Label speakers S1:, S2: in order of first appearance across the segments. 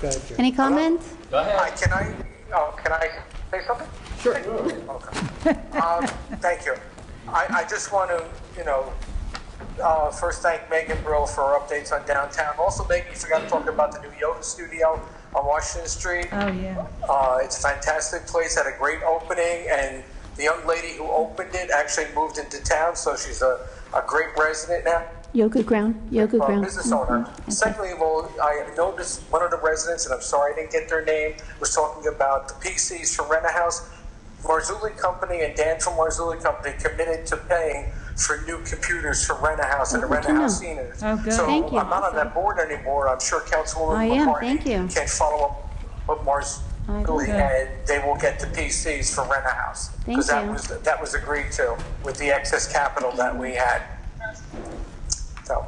S1: Thank you.
S2: Any comment?
S3: Hi, can I, oh, can I say something? Sure. Um, thank you. I, I just want to, you know, uh, first thank Megan Brill for her updates on downtown. Also, Megan, you forgot to talk about the new yoga studio on Washington Street.
S4: Oh, yeah.
S3: Uh, it's a fantastic place, had a great opening, and the young lady who opened it actually moved into town, so she's a, a great resident now.
S2: Yoga ground, yoga
S3: uh,
S2: ground.
S3: business owner.
S2: Mm-hmm. Okay.
S3: Secondly of all, I noticed one of the residents, and I'm sorry I didn't get their name, was talking about the PCs for rent a house. Marzulli Company and Dan from Marzulli Company committed to paying for new computers for rent a house and the
S2: Oh, good
S3: rent
S2: to
S3: a house
S2: know.
S3: seniors.
S4: Oh, good.
S3: So
S2: Thank you.
S3: I'm not on that board anymore. I'm sure Councilwoman
S2: I am.
S3: McCartney
S2: Thank you.
S3: can follow up with
S2: I will.
S3: Marzulli and they will get the PCs for rent a house.
S2: Thank
S3: Because that
S2: you.
S3: was, that was agreed to with the excess capital that we had. So.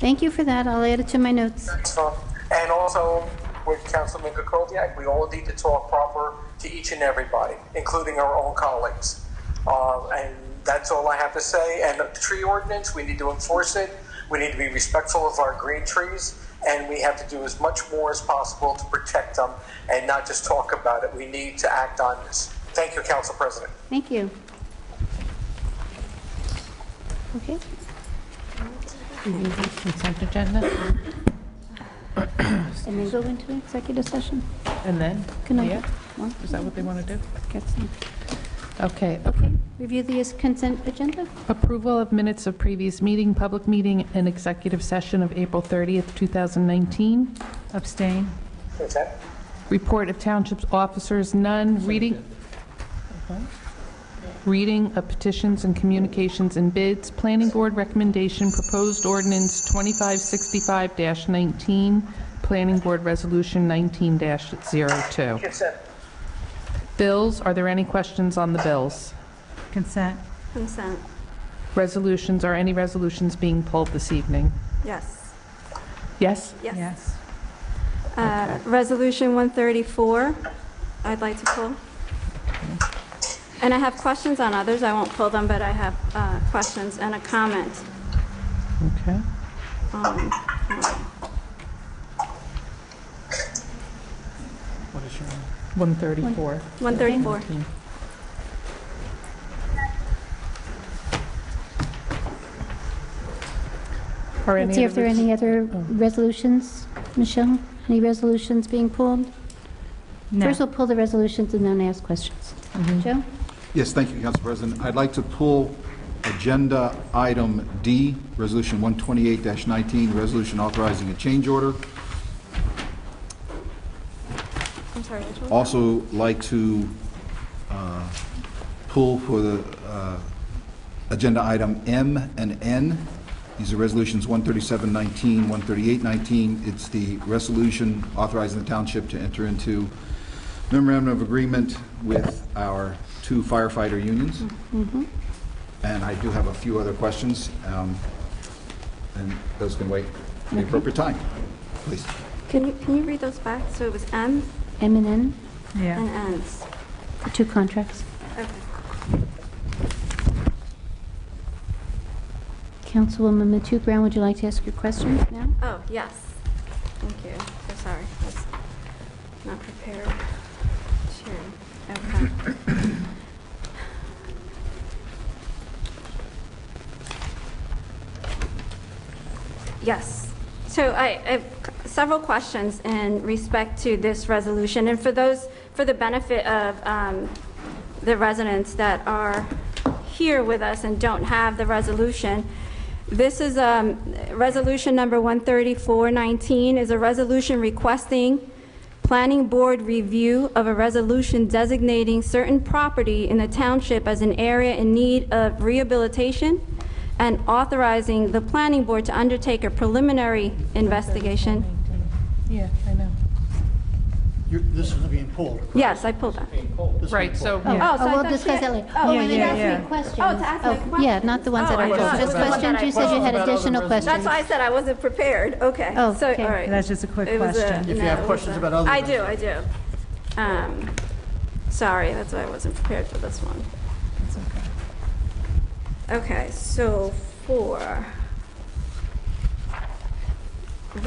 S2: Thank you for that. I'll add it to my notes.
S3: So, and also with Councilman Kukoviac, we all need to talk proper to each and everybody, including our own colleagues. Uh, and that's all I have to say. And the tree ordinance, we need to enforce it. We need to be respectful of our green trees. And we have to do as much more as possible to protect them and not just talk about it. We need to act on this. Thank you, Council President.
S2: Thank you. Okay,
S4: Consent agenda,
S2: and then go into executive session.
S4: and then?
S2: Can I
S4: Oh, Yeah?
S2: get one?
S4: Is that what they want to do?
S2: Get some.
S4: Okay.
S2: Okay, review the consent agenda.
S4: Approval of minutes of previous meeting, public meeting, and executive session of April 30th, 2019.
S5: Abstain.
S3: Okay?
S4: Report of township officers, none. Reading, reading of petitions and communications and bids. Planning Board recommendation, proposed ordinance 2565-19, Planning Board Resolution 19-02.
S3: Consent.
S4: Bills, are there any questions on the bills?
S5: Consent.
S6: Consent,
S4: Resolutions, are any resolutions being pulled this evening?
S6: yes,
S4: Yes?
S6: yes.
S5: Yes.
S6: Uh, Resolution 134, I'd like to pull. And I have questions on others, I won't pull them, but I have uh, questions and a comment.
S4: Okay.
S6: Um,
S1: What is your name?
S4: 134.
S6: 134,
S4: Are
S2: Let's
S4: any
S2: see if
S4: other
S2: there are
S4: res- oh.
S2: any other resolutions. Michelle, any resolutions being pulled?
S5: No.
S2: First, we'll pull the resolutions and then ask questions.
S4: Mm-hmm.
S2: Joe?
S7: Yes, thank you, Council President. I'd like to pull Agenda Item D, Resolution 128-19, Resolution authorizing a change order.
S6: I'm sorry, which one?
S7: Also like to uh, pull for the uh, Agenda Item M and N. These are Resolutions 137-19, 138-19. It's the resolution authorizing the township to enter into memorandum of agreement with our two firefighter unions. And I do have a few other questions, um, and those can wait for the appropriate time, please.
S6: Can you, can you read those back? So it was M
S2: M and N,
S6: and
S5: Yeah.
S6: N's.
S2: the two contracts.
S6: Okay.
S2: Councilwoman Matu Brown, would you like to ask your questions now?
S6: Oh, yes. Thank you. So sorry. I was not prepared. Sure. Okay. Yes. So I I have several questions in respect to this resolution. And for those, for the benefit of um, the residents that are here with us and don't have the resolution, this is, um, Resolution Number 13419 is a resolution requesting Planning Board review of a resolution designating certain property in the township as an area in need of rehabilitation and authorizing the Planning Board to undertake a preliminary investigation.
S4: Yeah, I know.
S1: You're- This is being pulled. correct?
S6: Yes, I pulled that.
S1: This is
S4: Right,
S1: being
S4: so,
S1: pulled.
S2: Oh,
S6: so I
S2: we'll
S6: thought
S2: discuss
S6: she-
S2: that later.
S6: oh,
S2: Oh,
S6: yeah,
S2: you
S5: yeah,
S2: asked
S5: yeah.
S2: me questions.
S6: Oh, to ask my
S2: Oh, Yeah, not the ones that are
S6: questions. Oh, I
S2: told,
S6: thought-
S2: just
S6: I thought
S2: questions,
S6: I
S2: you said you
S6: pulled.
S2: had
S1: About other
S2: additional
S1: resolutions.
S2: questions.
S6: That's why I said I wasn't prepared, okay.
S2: Oh,
S6: So, all
S2: okay.
S6: right.
S5: That's just a quick
S6: It was
S5: question.
S1: If you have
S6: no, it was
S1: questions
S6: a-
S1: about other
S6: I
S1: ones.
S6: do, I do. Um, Sorry, that's why I wasn't prepared for this one. Okay, so for